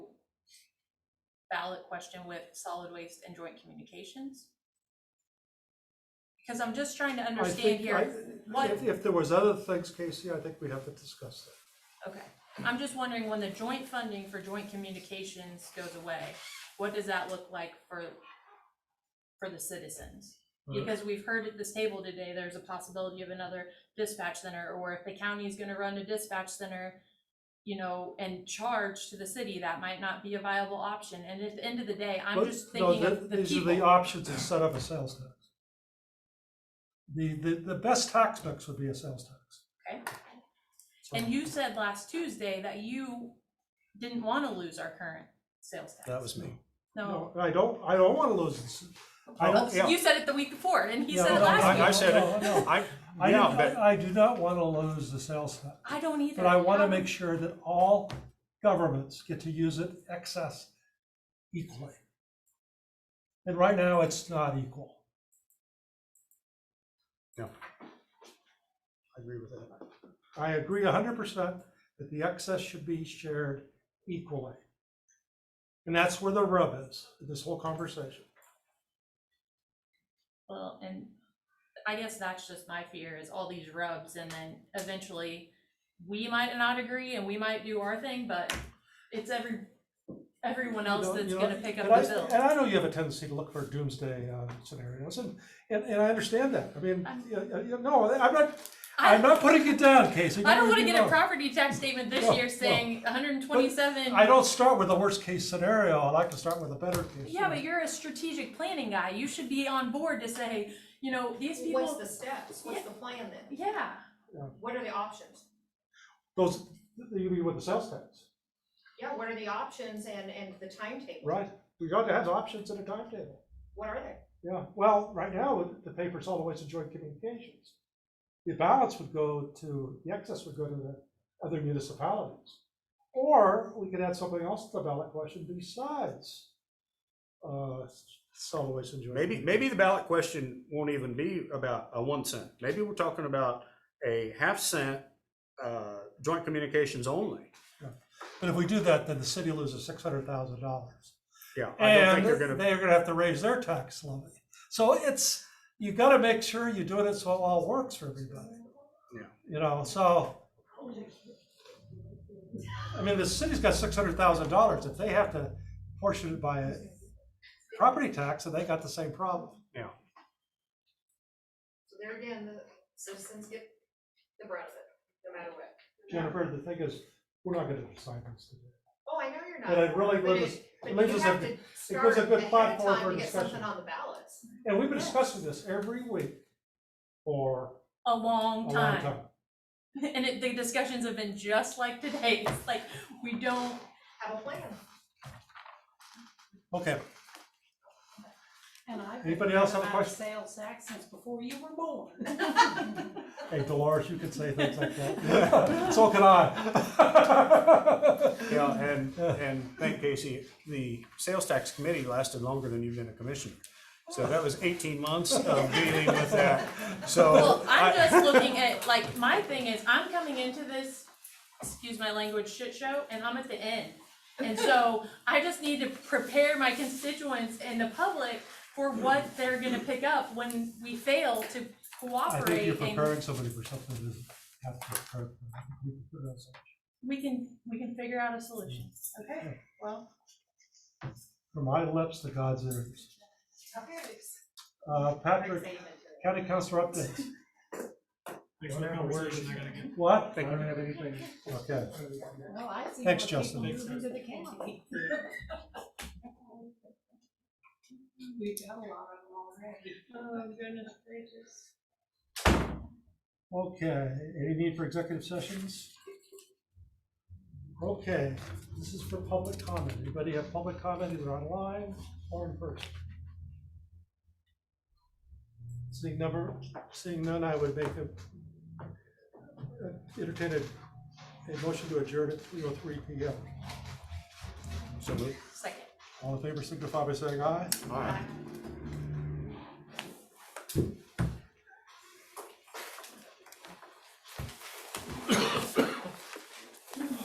ballot question with solid waste and joint communications? Because I'm just trying to I understand think- I- here, what- If, if there was other things, Casey, I think we have to discuss that. okay, I'm just wondering when the joint funding for joint communications goes away, what does that look like for, for the citizens? Hmm. Because we've heard at this table today, there's a possibility of another dispatch center, or if the county is gonna run a dispatch center, you know, and charge to the city, that might not be a viable option, and at the end of the day, I'm But, just no, thinking of the These are the people. options instead of a sales tax. The, the, the best tax mix would be a sales tax. Okay. So And you said last Tuesday that you didn't wanna lose our current sales tax. That was me. No, No, I don't, I don't wanna lose this. I don't, yeah. you said it the week before, and he said No, it no, last no, I- I week, said it. no, no. I, I do yeah, not- but I do not wanna lose the sales tax. I don't either. But I wanna How- make sure that all governments get to use it excess equally. And right now, it's not equal. I agree with that. I agree hundred percent that the excess should be shared equally. And that's where the rub is, in this whole conversation. Well, and I guess that's just my fear is all these rubs and then eventually we might not agree and we might do our thing, but it's every, everyone else You know- that's you know, gonna pick up and I- the bill. And I know you have a tendency to look for doomsday uh, scenarios, and, and, and I understand that. I mean, I'm- you- you- you- no, I'm not, I- I'm not putting it down, Casey. I don't wanna get me get a wrong. property tax statement this No, year no. saying hundred and twenty-seven. I don't start with the worst case scenario, I like to start with a better case. Yeah, but scenario. you're a strategic planning guy. You should be on board to say, you know, these What's people, the steps? What's the plan then? yeah. What are the options? Those, you mean with the sales tax, Yeah, what are the options and, and the timetable? right? We got to have options and a timetable. What are they? Yeah, well, right now, the paper's all the way to joint communications. The balance would go to, the excess would go to the other municipalities. Or we could add something else to the ballot question besides, uh, solid waste and joint. Maybe, maybe the ballot question won't even be about a one cent. Maybe we're talking about a half cent, uh, joint communications only. But if we do that, then the city loses six hundred thousand dollars. Yeah, I don't And think they're gonna, they're gonna have to raise their tax levy. So it's, you gotta make sure you're doing it so it all works for everybody. Yeah. You know, so. I mean, the city's got six hundred thousand dollars. If they have to portion it by a property tax, then they got the same problem. So there again, the citizens get the brunt of it, no matter what. Jennifer, the thing is, we're not gonna decide this today. Oh, I know you're not. And I'd really but live it- it leaves us a- it But you have to gives start a good ahead of platform time for to get discussion. something on the ballots. And we've been discussing this every week for A a long long time. time. And it, the discussions have been just like today. It's like, we don't, Have a plan. Okay, And I've been Anybody else have a about question? sales tax since before you were born. hey Dolores, you can say things like that. So can I. yeah, and, and thank Casey, the sales tax committee lasted longer than you've been a commissioner. So that was eighteen months of dealing with that, so. Well, I'm I- just looking at, like, my thing is, I'm coming into this, excuse my language, shit show, and I'm at the end. And so I just need to prepare my constituents and the public for what they're gonna pick up when we fail to I think you're cooperate and preparing somebody for something that doesn't have to occur. You can put it on something. we can, we can figure out a solution. Mm. Okay, well, From my lips to God's ears. Uh, Patrick, county councilor updates. Thanks for the conversation, I gotta get What? Thank you. don't have anything. Okay. Well, I see Thanks, more Justin. people moving to the county. We've got a lot of them already. Oh, goodness gracious. Okay, any need for executive sessions? Okay, this is for public comment. Anybody have public comment either online or in person? Seeing number, seeing none, I would make a, entertain a, a motion to adjourn at three oh three P M. So moved. second. All in favor, signify by saying aye. All right.